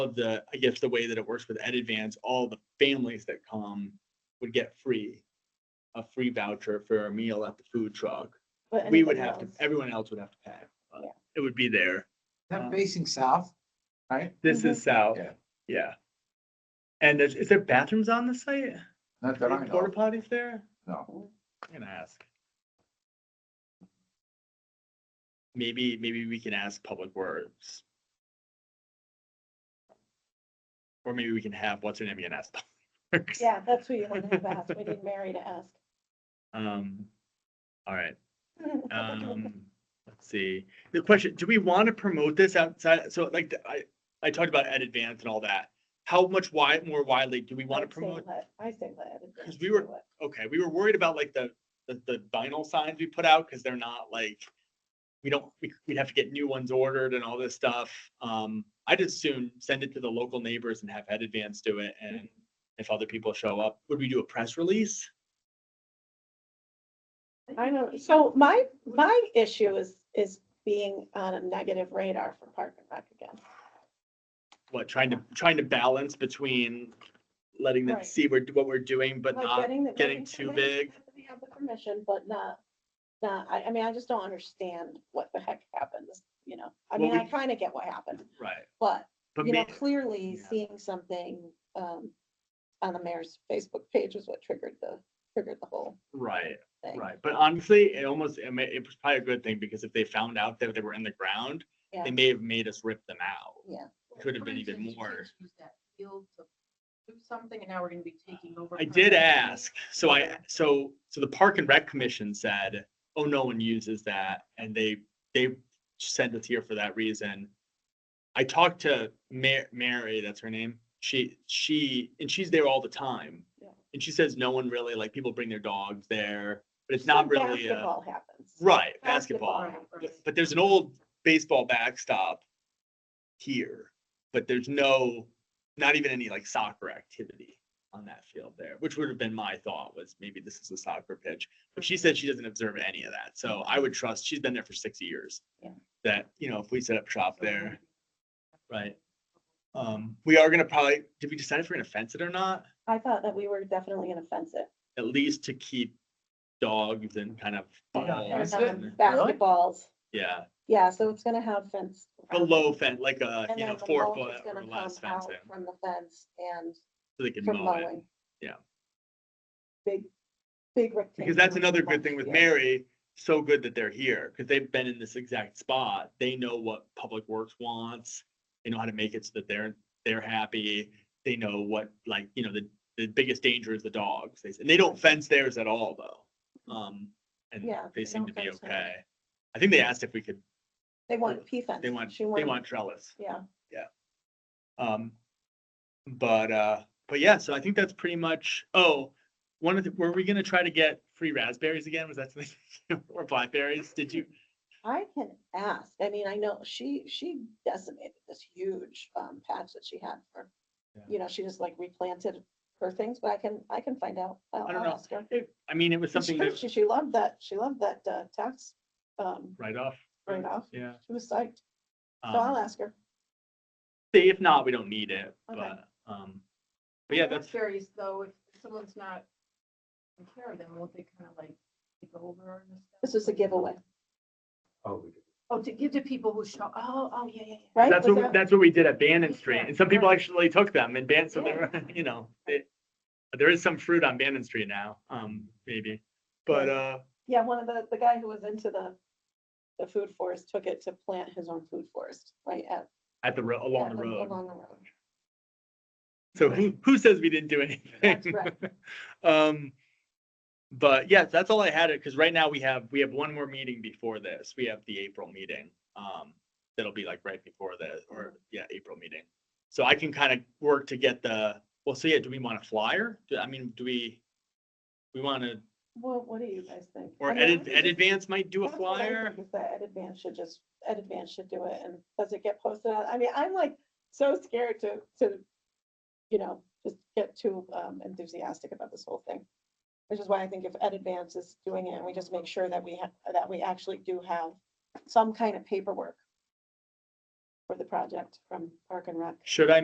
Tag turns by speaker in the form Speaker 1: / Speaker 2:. Speaker 1: of the, I guess the way that it works with EdAdvance, all the families that come would get free, a free voucher for a meal at the food truck.
Speaker 2: But
Speaker 1: We would
Speaker 2: anybody
Speaker 1: have to,
Speaker 2: else?
Speaker 1: everyone else would have to pay. but
Speaker 2: Yeah.
Speaker 1: It would be there.
Speaker 3: That facing south, right?
Speaker 1: This
Speaker 2: Mm-hmm.
Speaker 1: is south.
Speaker 3: Yeah.
Speaker 1: Yeah. And is, is there bathrooms on the site?
Speaker 3: Not that I
Speaker 1: Any Porta
Speaker 3: know,
Speaker 1: potties there?
Speaker 3: no.
Speaker 1: I'm gonna ask. Maybe, maybe we can ask Public Works. Or maybe we can have, what's her name, again, ask Public Works.
Speaker 2: Yeah, that's who you wanted to ask. We need Mary to ask.
Speaker 1: Um, all right, um, let's see, the question, do we want to promote this outside, so like, the- I, I talked about Ed Advance and all that. How much wide, more widely, do we want to
Speaker 2: I'd say
Speaker 1: promote,
Speaker 2: let- I say let. it
Speaker 1: Because
Speaker 2: be.
Speaker 1: we were- okay, we were worried about like the, the, the vinyl signs we put out, because they're not like, we don't, we, we'd have to get new ones ordered and all this stuff, um, I'd just soon send it to the local neighbors and have Ed Advance do it, and if other people show up, would we do a press release?
Speaker 2: I know. So my, my issue is, is being on a negative radar for Park and Rec again.
Speaker 1: what trying to trying to balance between letting them
Speaker 2: Right.
Speaker 1: see we're what we're doing but
Speaker 2: Like
Speaker 1: not
Speaker 2: the-
Speaker 1: getting too
Speaker 2: permission,
Speaker 1: big.
Speaker 2: We have the permission, but not, not, I, I mean, I just don't understand what the heck happened, you know? I
Speaker 1: Well,
Speaker 2: mean, I
Speaker 1: we-
Speaker 2: kind of get what happened,
Speaker 1: right
Speaker 2: but,
Speaker 1: but
Speaker 2: you know,
Speaker 1: may-
Speaker 2: clearly
Speaker 1: yeah.
Speaker 2: seeing something, um, on the mayor's Facebook page is what triggered the, triggered the whole
Speaker 1: right
Speaker 2: thing.
Speaker 1: right but honestly it almost it, may, it was probably a good thing because if they found out that they were in the ground
Speaker 2: Yeah.
Speaker 1: they may have made us rip them out
Speaker 4: Well,
Speaker 1: could have been
Speaker 4: for
Speaker 1: even
Speaker 4: instance, you
Speaker 1: more.
Speaker 4: guys used that field to Do something and now we're gonna be taking over.
Speaker 1: i did
Speaker 4: permanently.
Speaker 1: ask so i
Speaker 4: Okay.
Speaker 1: so so the park and rec commission said oh no one uses that and they they sent us here for that reason i talked to Ma- mary that's her name she she and she's there all the time
Speaker 2: Yeah.
Speaker 1: and she says no one really like people bring their dogs there but it's
Speaker 2: So
Speaker 1: not really a,
Speaker 2: Basketball happens.
Speaker 1: right
Speaker 2: Basketball.
Speaker 1: basketball
Speaker 4: Right,
Speaker 1: but-
Speaker 4: right.
Speaker 1: but there's an old baseball backstop here, but there's no, not even any like soccer activity on that field there, which would have been my thought was maybe this is a soccer pitch. But she said she doesn't observe any of that. So I would trust, she's been there for six years.
Speaker 2: Yeah.
Speaker 1: That, you know, if we set up shop
Speaker 4: So we're
Speaker 1: there,
Speaker 4: gonna be-
Speaker 1: right? Um, we are gonna probably, did we decide if we're gonna fence it or not?
Speaker 2: I thought that we were definitely gonna fence it.
Speaker 1: At least to keep dogs and kind of.
Speaker 3: Yeah,
Speaker 2: We're
Speaker 1: balls
Speaker 3: fence it?
Speaker 1: and-
Speaker 2: having Basketballs,
Speaker 1: Yeah,
Speaker 2: yeah, so it's gonna have fence. around it.
Speaker 1: below fence, like a,
Speaker 2: And
Speaker 1: you know,
Speaker 2: then the
Speaker 1: four
Speaker 2: mulch
Speaker 1: foot
Speaker 2: is
Speaker 1: or
Speaker 2: gonna
Speaker 1: less
Speaker 2: come out
Speaker 1: fencing.
Speaker 2: From the fence and
Speaker 1: So they can
Speaker 2: from
Speaker 1: mow it,
Speaker 2: mowing.
Speaker 1: Yeah.
Speaker 2: Big, big rectangle.
Speaker 1: because that's another good thing with
Speaker 2: Yeah.
Speaker 1: Mary, so good that they're here, because they've been in this exact spot, they know what Public Works wants. They know how to make it so that they're, they're happy, they know what, like, you know, the, the biggest danger is the dogs, they, and they don't fence theirs at all, though. Um, and
Speaker 2: Yeah,
Speaker 1: they
Speaker 2: they
Speaker 1: seem to
Speaker 2: don't
Speaker 1: be
Speaker 2: fence them.
Speaker 1: okay. I think they asked if we could,
Speaker 2: They want P fence.
Speaker 1: they want,
Speaker 2: She
Speaker 1: they
Speaker 2: wanted-
Speaker 1: want trellis,
Speaker 2: Yeah,
Speaker 1: um, but, uh, but yeah, so I think that's pretty much, oh, one of the, were we gonna try to get free raspberries again, was that something, or blackberries, did you?
Speaker 2: I can ask. I mean, I know she, she decimated this huge um patch that she had for,
Speaker 1: Yeah.
Speaker 2: you know, she just like replanted her things, but I can, I can find out. I'll
Speaker 1: I don't
Speaker 2: I'll
Speaker 1: know.
Speaker 2: ask her.
Speaker 1: It- I mean, it was something
Speaker 2: She,
Speaker 1: that,
Speaker 2: she- she loved that, she loved that uh, tax um
Speaker 1: right off.
Speaker 2: write off.
Speaker 1: Yeah.
Speaker 2: She was psyched. So I'll
Speaker 1: Um,
Speaker 2: ask her.
Speaker 1: see, If not, we don't need it,
Speaker 2: Okay.
Speaker 1: but, um, but yeah,
Speaker 4: I'm
Speaker 1: that's,
Speaker 4: Curious though, if someone's not taking care of them, won't they kind of like take over? and stuff?
Speaker 2: This was a giveaway,
Speaker 3: Oh,
Speaker 4: Oh, to give to people who show, oh, oh, yeah, yeah, yeah.
Speaker 2: right?
Speaker 1: that's what,
Speaker 2: Was
Speaker 1: we-
Speaker 2: that-
Speaker 1: that's what we did at Bannon Street,
Speaker 4: Yeah,
Speaker 1: and some people
Speaker 4: right.
Speaker 1: actually took them and Ban, so
Speaker 4: Yeah.
Speaker 1: there, you know, it- but there is some fruit on Bannon Street now, um, maybe, but, uh,
Speaker 2: Yeah, one of the, the guy who was into the, the food forest took it to plant his own food forest, right at.
Speaker 1: at the, ro- along
Speaker 2: at
Speaker 1: the road.
Speaker 2: Along the road.
Speaker 1: So who, who says we didn't do
Speaker 2: That's
Speaker 1: anything?
Speaker 2: right.
Speaker 1: Um, but yeah, that's all I had it, because right now we have, we have one more meeting before this. We have the April meeting. Um, that'll be like right before the, or yeah, April meeting. So I can kind of work to get the, well, so yeah, do we want a flyer? Do, I mean, do we? We want to,
Speaker 2: Well, what do you guys think?
Speaker 1: or
Speaker 2: I mean, I
Speaker 1: Ed,
Speaker 2: think
Speaker 1: Ed
Speaker 2: it's-
Speaker 1: Advance might do a
Speaker 2: that's what I
Speaker 1: flyer?
Speaker 2: think Is that Ed Advance should just, Ed Advance should do it, and does it get posted on, I mean, I'm like so scared to, to, you know, just get too um, enthusiastic about this whole thing. Which is why I think if Ed Advance is doing it, and we just make sure that we have, that we actually do have some kind of paperwork for the project from Park and Rec.
Speaker 1: Should I